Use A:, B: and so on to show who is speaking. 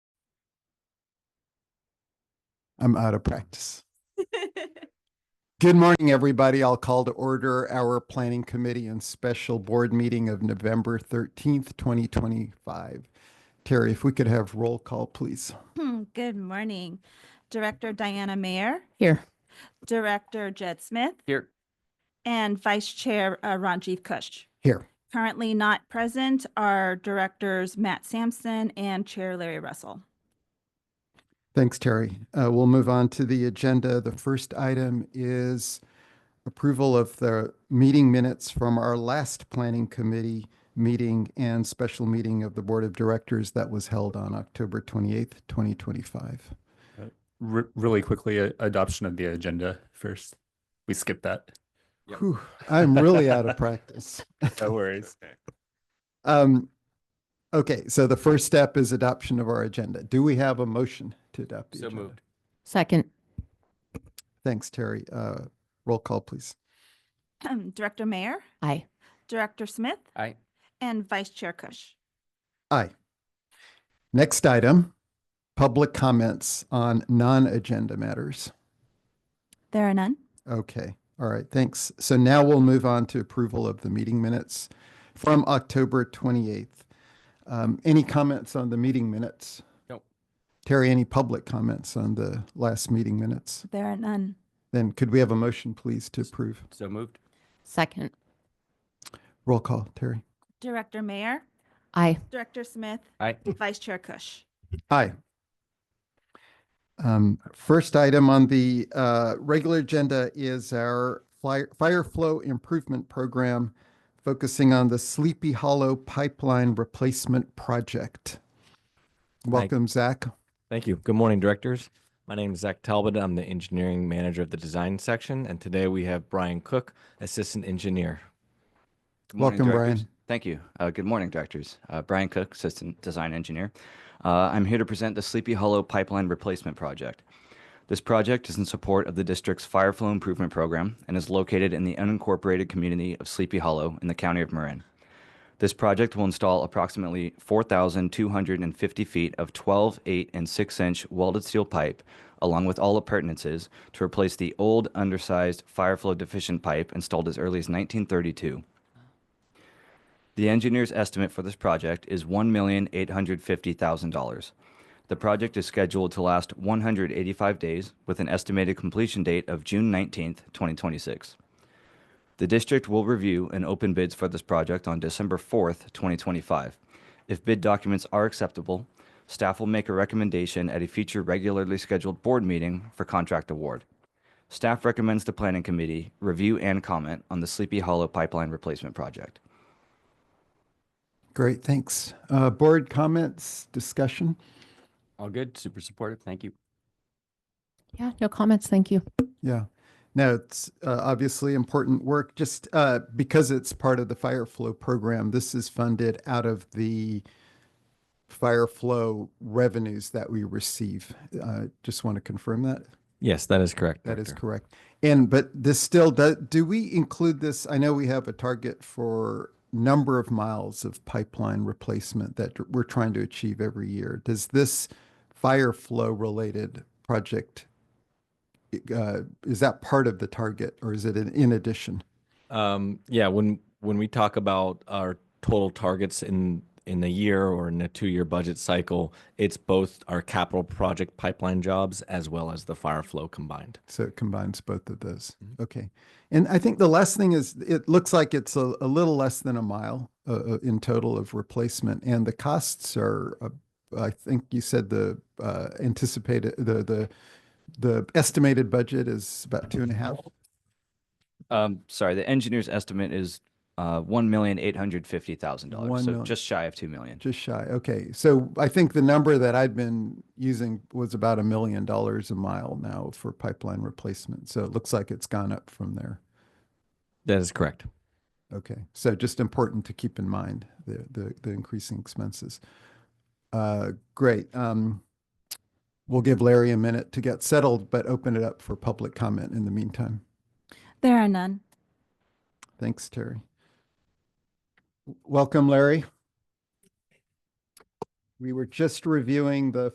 A: I'm out of practice. Good morning, everybody. I'll call to order our Planning Committee and Special Board Meeting of November 13th, 2025. Terry, if we could have roll call, please.
B: Hmm, Good morning. Director Diana Mayer,
C: Here.
B: Director Jed Smith,
D: Here.
B: and Vice Chair uh, Ranjiv Kush.
A: Here.
B: Currently not present are Directors Matt Sampson and Chair Larry Russell.
A: Thanks, Terry. Uh, We'll move on to the agenda. The first item is approval of the meeting minutes from our last Planning Committee meeting and special meeting of the Board of Directors that was held on October 28th, 2025.
D: Re- really quickly, a- adoption of the agenda first. We skipped that.
E: Yep.
A: Whew, I'm really out of practice.
D: No worries.
A: Um, okay, so the first step is adoption of our agenda. Do we have a motion to adopt the
E: So
A: agenda?
E: moved.
C: Second.
A: Thanks, Terry. Uh, roll call, please.
B: Director Mayer,
C: Aye.
B: Director Smith,
E: Aye.
B: and Vice Chair Kush.
A: Aye. Next item, public comments on non-agenda matters.
B: There are none.
A: Okay, all right, thanks. So now we'll move on to approval of the meeting minutes from October 28th. Um, any comments on the meeting minutes?
E: Nope.
A: Terry, any public comments on the last meeting minutes?
B: There are none.
A: Then could we have a motion, please, to approve?
E: So moved.
C: Second.
A: Roll call, Terry.
B: Director Mayer,
C: Aye.
B: Director Smith,
E: Aye.
B: Vice Chair Kush.
A: Aye. Um, First item on the uh, regular agenda is our fire fire flow improvement program focusing on the Sleepy Hollow Pipeline Replacement Project. Welcome, Zach.
F: Thank you. Good morning, directors. My name is Zach Talbot. I'm the engineering manager of the design section, and today we have Brian Cook, assistant engineer.
E: Good morning,
A: Welcome,
E: directors.
A: Brian.
E: Thank you. Uh, good morning, directors. Uh, Brian Cook, Assistant Design Engineer. Uh, I'm here to present the Sleepy Hollow Pipeline Replacement Project. This project is in support of the district's fire flow improvement program and is located in the unincorporated community of Sleepy Hollow in the county of Marin. This project will install approximately 4,250 feet of 12, 8, and 6 inch welded steel pipe, along with all appurtenances, to replace the old, undersized, fire flow deficient pipe installed as early as 1932. The engineer's estimate for this project is $1,850,000. The project is scheduled to last 185 days with an estimated completion date of June 19th, 2026. The district will review and open bids for this project on December 4th, 2025. If bid documents are acceptable, staff will make a recommendation at a future regularly scheduled board meeting for contract award. Staff recommends the planning committee review and comment on the Sleepy Hollow Pipeline Replacement Project.
A: Great, thanks. Uh, Board comments, discussion?
D: All good. Super supportive. Thank you.
C: Yeah, no comments. Thank you.
A: Yeah. No, it's uh, obviously important work. Just uh, because it's part of the fire flow program, this is funded out of the fire flow revenues that we receive. Uh, just want to confirm that.
F: Yes, that is correct.
A: That is
F: director.
A: correct. And but this still does, do we include this? I know we have a target for number of miles of pipeline replacement that dr- we're trying to achieve every year. Does this fire flow related project i- uh, is that part of the target or is it in, in addition?
F: Um, yeah, when when we talk about our total targets in in a year or in a two year budget cycle, it's both our capital project pipeline jobs as well as the fire flow combined.
A: So it combines both of those. Okay. And I think the last thing is it looks like it's a, a little less than a mile uh, uh, in total of replacement, and the costs are. Uh, I think you said the uh, anticipated the the the estimated budget is about two and a half.
E: Um, sorry, the engineer's estimate is uh one million eight hundred fifty thousand
A: One
E: dollars, so
A: million.
E: just shy of two million.
A: Just shy. Okay. So I think the number that I'd been using was about a million dollars a mile now for pipeline replacement. So it looks like it's gone up from there.
F: That is correct.
A: Okay, so just important to keep in mind the the, the increasing expenses. Uh, great. Um, we'll give Larry a minute to get settled, but open it up for public comment in the meantime.
B: There are none.
A: Thanks, Terry. W- Welcome, Larry. We were just reviewing the